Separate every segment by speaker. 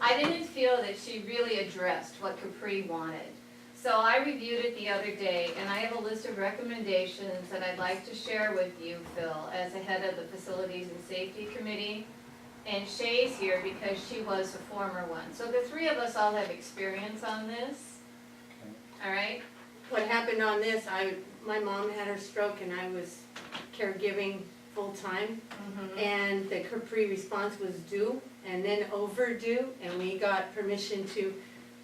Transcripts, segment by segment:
Speaker 1: I didn't feel that she really addressed what Capri wanted. So I reviewed it the other day, and I have a list of recommendations that I'd like to share with you, Phil, as the head of the Facilities and Safety Committee. And Shay's here because she was the former one. So the three of us all have experience on this, all right?
Speaker 2: What happened on this, I, my mom had her stroke and I was caregiving full-time.
Speaker 1: Mm-hmm.
Speaker 2: And the Capri response was due and then overdue, and we got permission to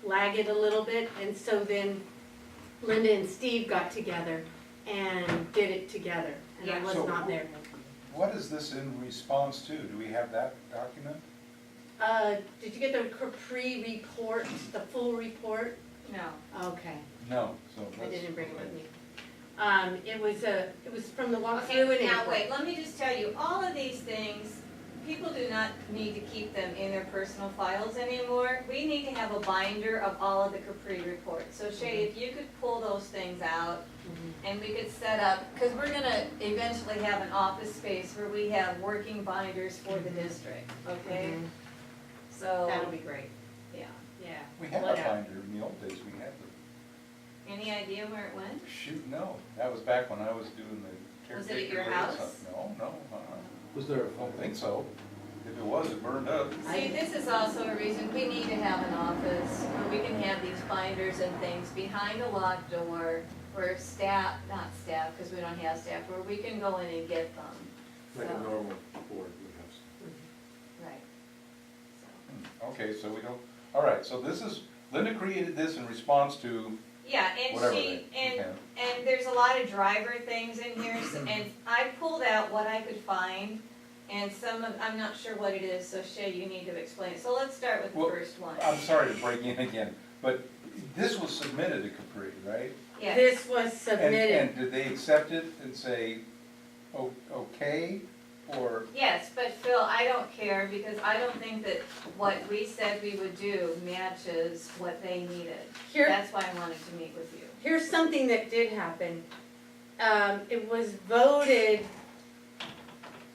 Speaker 2: lag it a little bit. And so then Linda and Steve got together and did it together, and I
Speaker 1: Yeah.
Speaker 2: was
Speaker 3: So-
Speaker 2: not there.
Speaker 3: What is this in response to? Do we have that document?
Speaker 2: Uh, did you get the Capri report, the full report?
Speaker 1: No.
Speaker 2: Okay.
Speaker 3: No, so
Speaker 2: I
Speaker 3: that's.
Speaker 2: didn't bring it with me. Um, it was a, it was from the
Speaker 1: Okay,
Speaker 2: walkthrough and.
Speaker 1: now wait, let me just tell you, all of these things, people do not need to keep them in their personal files anymore. We need to have a binder of all of the Capri reports. So Shay, if
Speaker 2: Mm-hmm.
Speaker 1: you could pull those things out and we could set up, because we're gonna eventually have an office space where we have working binders for the district, okay?
Speaker 2: Mhm.
Speaker 1: So,
Speaker 2: Mm-hmm. That'll be great,
Speaker 1: yeah.
Speaker 2: yeah.
Speaker 3: We had a
Speaker 2: Whatever.
Speaker 3: binder in the old days, we had the,
Speaker 1: Any idea where it went?
Speaker 3: shoot, no, that was back when I was doing the
Speaker 1: Was it
Speaker 3: caretaker.
Speaker 1: at your
Speaker 3: or
Speaker 1: house?
Speaker 3: something. No, no, uh-uh.
Speaker 4: Was there a
Speaker 3: I don't think so. If it was, it burned up.
Speaker 1: See, this is also a reason we need to have an office where we can have these binders and things behind a locked door where staff, not staff, because we don't have staff, where we can go in and get them.
Speaker 4: Like a
Speaker 1: So-
Speaker 4: normal board would have.
Speaker 1: Right.
Speaker 3: Hmm, Okay, so we don't, all right, so this is, Linda created this in response to
Speaker 1: Yeah,
Speaker 3: whatever
Speaker 1: and she,
Speaker 3: they-
Speaker 1: and,
Speaker 3: okay.
Speaker 1: and there's a lot of driver things in here, s- and I pulled out what I could find. And some of, I'm not sure what it is, so Shay, you need to explain. So let's start with the
Speaker 3: Well, um,
Speaker 1: first one.
Speaker 3: I'm sorry to break in again, but this was submitted to Capri, right?
Speaker 1: Yeah.
Speaker 2: This was
Speaker 3: And,
Speaker 2: submitted,
Speaker 3: and did they accept it and say, "O- okay, or,
Speaker 1: Yes, but Phil, I don't care because I don't think that what we said we would do matches what they needed.
Speaker 2: here,
Speaker 1: That's why I wanted to meet with you.
Speaker 2: here's something that did happen. Um, it was voted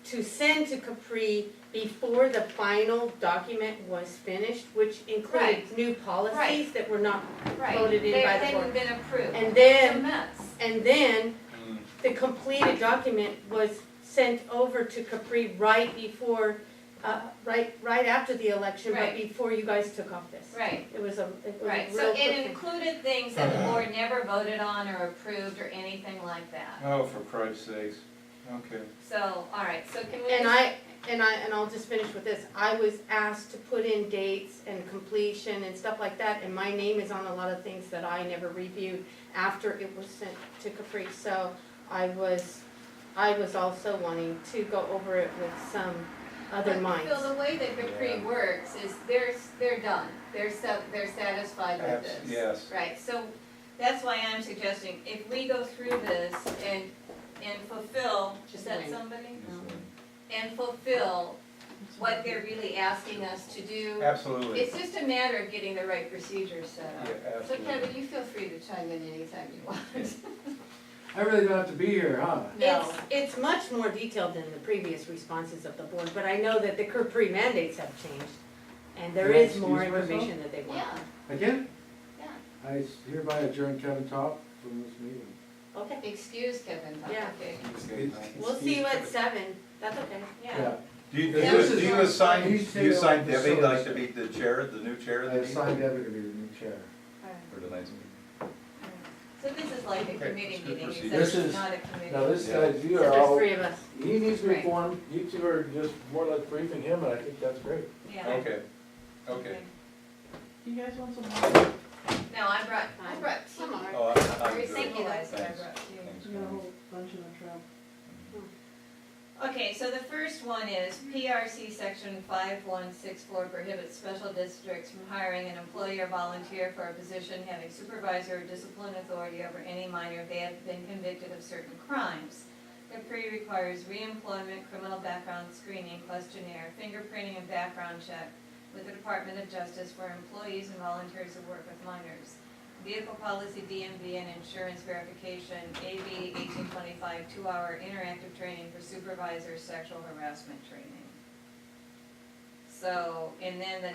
Speaker 2: to send to Capri before the final document was finished, which included new policies
Speaker 1: Right.
Speaker 2: that were not,
Speaker 1: Right.
Speaker 2: Voted in
Speaker 1: They
Speaker 2: by the
Speaker 1: hadn't
Speaker 2: board.
Speaker 1: been approved.
Speaker 2: and
Speaker 1: It's a
Speaker 2: then,
Speaker 1: mess.
Speaker 2: and then
Speaker 3: hmm,
Speaker 2: the completed document was sent over to Capri right before, uh, right, right after the election, but
Speaker 1: Right.
Speaker 2: before you guys took office.
Speaker 1: Right,
Speaker 2: It was a, it was a
Speaker 1: right.
Speaker 2: real
Speaker 1: So
Speaker 2: quick
Speaker 1: it
Speaker 2: thing.
Speaker 1: included things that the board never voted on or approved or anything like that.
Speaker 3: oh, for Christ's sakes, okay.
Speaker 1: So, all right, so can we?
Speaker 2: And I, and I, and I'll just finish with this, I was asked to put in dates and completion and stuff like that, and my name is on a lot of things that I never reviewed after it was sent to Capri, so I was, I was also wanting to go over it with some other
Speaker 1: But,
Speaker 2: minds.
Speaker 1: Phil, the way that Capri
Speaker 3: Yeah.
Speaker 1: works is they're, they're done. They're sa- they're satisfied with
Speaker 3: Abs-
Speaker 1: this.
Speaker 3: Yes,
Speaker 1: Right, so that's why I'm suggesting, if we go through this and, and fulfill, is that
Speaker 2: Just wait.
Speaker 1: somebody?
Speaker 3: Yes,
Speaker 1: And fulfill what they're really asking us to do.
Speaker 3: absolutely,
Speaker 1: It's just a matter of getting the right procedures set
Speaker 3: yeah,
Speaker 1: up. So
Speaker 3: absolutely.
Speaker 1: Kevin, you feel free to chime in anytime you want.
Speaker 4: I really don't have to be here, huh?
Speaker 2: It's, it's much more detailed than the previous responses of the board, but I know that the Capri mandates have changed, and there
Speaker 4: Can I
Speaker 2: is more
Speaker 4: excuse myself?
Speaker 2: information that they want.
Speaker 1: Yeah,
Speaker 4: Again?
Speaker 1: Yeah.
Speaker 4: I hereby adjourn Kevin Top from this meeting.
Speaker 2: Okay,
Speaker 1: excuse Kevin. Dr.
Speaker 2: Yeah.
Speaker 1: King.
Speaker 2: we'll see you at seven, that's okay.
Speaker 1: Yeah.
Speaker 3: Do you,
Speaker 4: Yeah.
Speaker 3: do you assign,
Speaker 4: He's
Speaker 3: do you assign
Speaker 4: still-
Speaker 3: Debbie like to be the chair, the new chair of
Speaker 4: I
Speaker 3: the meeting?
Speaker 4: assigned Debbie to be the new chair.
Speaker 1: All right.
Speaker 3: For tonight's meeting.
Speaker 1: So this is like a
Speaker 3: Okay,
Speaker 1: committee
Speaker 3: it's good
Speaker 1: meeting,
Speaker 3: procedure.
Speaker 4: This
Speaker 1: except it's
Speaker 4: is-
Speaker 1: not a committee.
Speaker 4: Now, this
Speaker 3: Yeah.
Speaker 4: guy, you
Speaker 2: So
Speaker 4: are
Speaker 2: there's
Speaker 4: all,
Speaker 2: three of us.
Speaker 4: he needs to be
Speaker 1: Right.
Speaker 4: informed, you two are just more or less briefing him, and I think that's great.
Speaker 1: Yeah.
Speaker 3: Okay, okay.
Speaker 5: You guys want some?
Speaker 1: No, I brought, I brought tea.
Speaker 2: Come on.
Speaker 3: Oh, I- I'm
Speaker 1: Very
Speaker 3: good.
Speaker 1: thank you, that's what I
Speaker 3: Thanks.
Speaker 1: brought tea.
Speaker 3: Thanks,
Speaker 5: You got a
Speaker 3: Connie.
Speaker 5: whole bunch in the truck.
Speaker 1: Okay, so the first one is PRC section five one six four prohibits special districts from hiring an employee or volunteer for a position having supervisor or discipline authority over any minor if they have been convicted of certain crimes. The pre requires reemployment, criminal background screening, questionnaire, fingerprinting, and background check with the Department of Justice for employees and volunteers who work with minors. Vehicle policy, DMV, and insurance verification, AB eighteen twenty-five, two-hour interactive training for supervisor sexual harassment training. So, and then the